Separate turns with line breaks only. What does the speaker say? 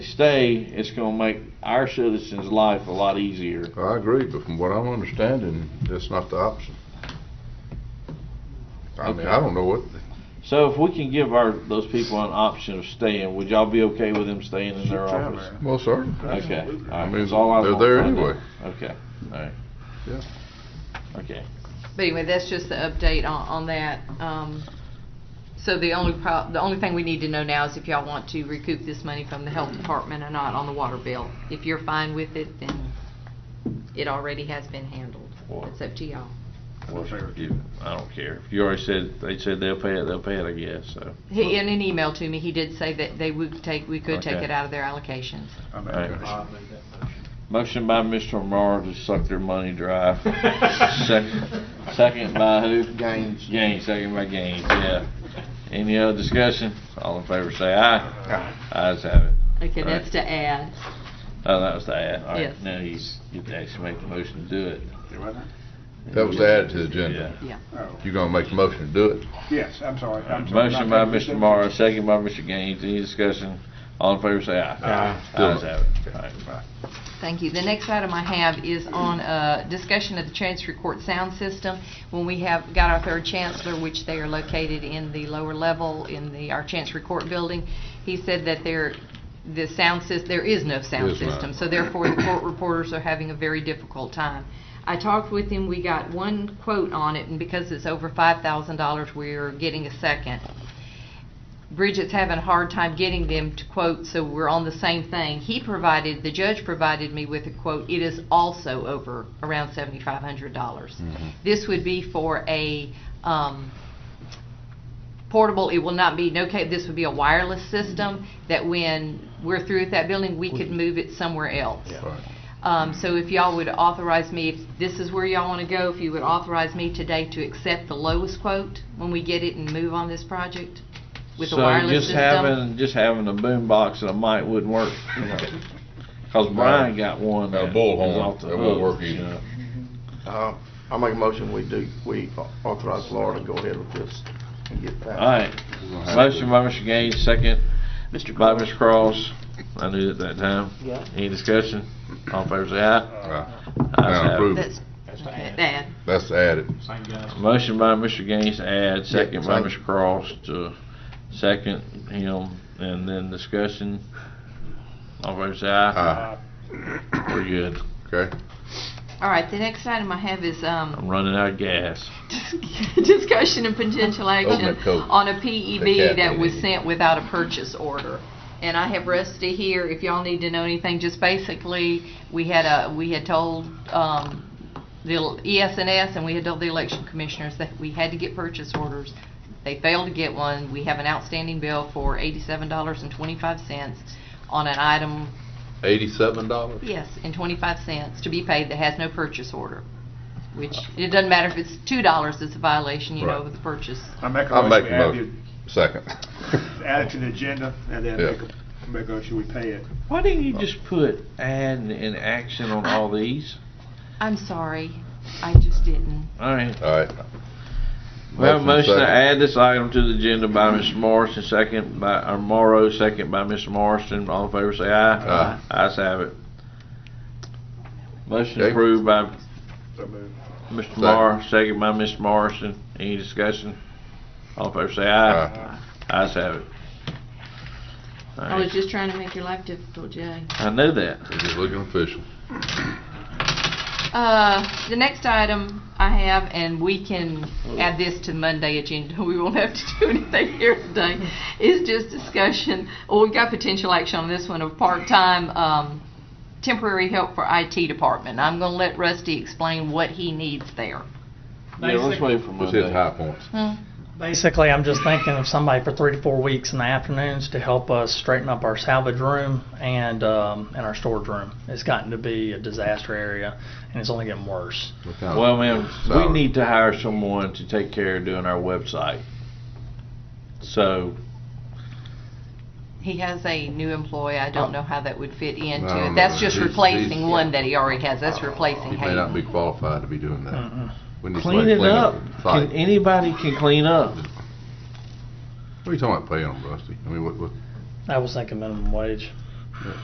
stay, it's gonna make our citizens' life a lot easier.
I agree, but from what I'm understanding, that's not the option. I mean, I don't know what,
So if we can give our, those people an option of staying, would y'all be okay with them staying in their
Sure,
office?
man.
well, sir,
Okay, all
I
right,
mean,
that's all I
they're
want
there
right now.
anyway.
Okay, all right.
Yeah.
Okay,
But anyway, that's just the update on, on that. Um, so the only pro, the only thing we need to know now is if y'all want to recoup this money from the health department or not on the water bill. If you're fine with it, then it already has been handled.
Well-
It's up to y'all.
well, you- I don't care. If you already said, they said they'll pay it, they'll pay it, I guess, so.
He, in an email to me, he did say that they would take, we could take
Okay.
it out of their allocations.
I uh, make
Right.
a motion.
Motion by Mr. Morrow to suck their money dry. Second, second by who? Gaines. Gaines, second by Gaines, yeah. Any other discussion? All in favor say aye. Aye. Ayes have it.
Okay,
Right.
that's to add.
Oh, that was the ad. All right,
Yes.
now he's, you can actually make the motion to do it.
You with it?
that was added to the agenda.
Yeah.
Oh,
You gonna make the motion to do it?
Yes, I'm sorry. I'm sorry.
Motion by
Not that-
Mr. Morrow, second by Mr. Gaines. Any discussion? All in favor, say aye.
Aye.
Ayes have it. All right.
Thank you. The next item I have is on uh, discussion of the transfer court sound system. When we have got our third chancellor, which they are located in the lower level in the, our chancery court building, he said that there, the sound sys, there is no sound
There's not.
system. So therefore, the court reporters are having a very difficult time. I talked with him, we got one quote on it, and because it's over $5,000, we're getting a second. Bridget's having a hard time getting them to quote, so we're on the same thing. He provided, the judge provided me with a quote, it is also over around seventy-five hundred dollars. This would be for a, um, portable, it will not be, no, ca- this would be a wireless system that when we're through with that building, we could move it somewhere else.
Right.
Um, so if y'all would authorize me, if this is where y'all wanna go, if you would authorize me today to accept the lowest quote when we get it and move on this project with the wireless
So just
system?
having, just having a boom box and a mic wouldn't work, you know. Cause Brian got one.
A
that was
bullhorn,
off the
that won't
hook,
work
you
either.
know.
Uh, I make a motion, we do, we authorize Laura to go ahead with this and get that.
All right. Motion by Mr. Gaines, second
Mr.
by Ms. Cross. I knew it that time.
Yeah.
Any discussion? All in favor, say aye.
Right.
Ayes
Now
have it.
approve it.
That's, okay, that,
That's added.
Motion by Mr. Gaines to add, second by
Yeah,
Mr. Cross to second him, and then discussion. All in favor say aye.
Uh,
Aye,
We're good.
okay?
all right, the next item I have is, um,
I'm running out of gas.
discussion and potential action
that coat.
on a
That
PEB
cat
that was
lady.
sent without a purchase order. And I have Rusty here, if y'all need to know anything, just basically, we had a, we had told, um, the E ESNS and we had told the election commissioners that we had to get purchase orders. They failed to get one. We have an outstanding bill for eighty-seven dollars and twenty-five cents on an item
Eighty-seven dollars?
Yes, and 25 cents to be paid that has no purchase order, which, it doesn't matter if it's $2, it's a violation, you know,
Right.
with the purchase.
I make a
I'll
motion,
make
we
the
add
motion. Second.
it- add it to the agenda, and then
Yeah.
make a, make a, should we pay it?
Why didn't you just put add in action on all these?
I'm sorry, I just didn't.
All right.
All right.
We have a motion to
second.
add this item to the agenda by Mr. Morrison, second by, or Morrow, second by Mr. Morrison. All in favor, say aye. Aye. Ayes have it. Motion
Okay.
approved by
So move.
Mr. Morrow, second by Mr. Morrison. Any discussion? All in favor, say
Uh,
aye. Ayes have it. All
I was
right.
just trying to make your life difficult, Jay.
I knew that.
We're just looking official.
Uh, the next item I have, and we can add this to Monday agenda, we won't have to do anything here today, is just discussion, well, we got potential action on this one of part-time, um, temporary help for IT department. I'm gonna let Rusty explain what he needs there.
Yeah, let's wait for
Let's hit
Monday.
high points.
Hmm.
Basically, I'm just thinking of somebody for three to four weeks in the afternoons to help us straighten up our salvage room and um, and our storage room. It's gotten to be a disaster area, and it's only getting worse.
What kind of-
Well, ma'am, we
Salary.
need to hire someone to take care of doing our website. So,
He has a new employee, I don't
Oh.
know how that would fit
I
into
don't
it. That's
know.
just
He's-
replacing
he's- Oh,
one that he already has, that's
He
replacing
may not be
Hayden.
qualified to be doing that.
Mm-mm.
We need
clean
somebody to
it up.
the
Can,
site.
anybody can clean up.
What are you talking about paying them, Rusty? I mean, what, what,
I was thinking minimum wage.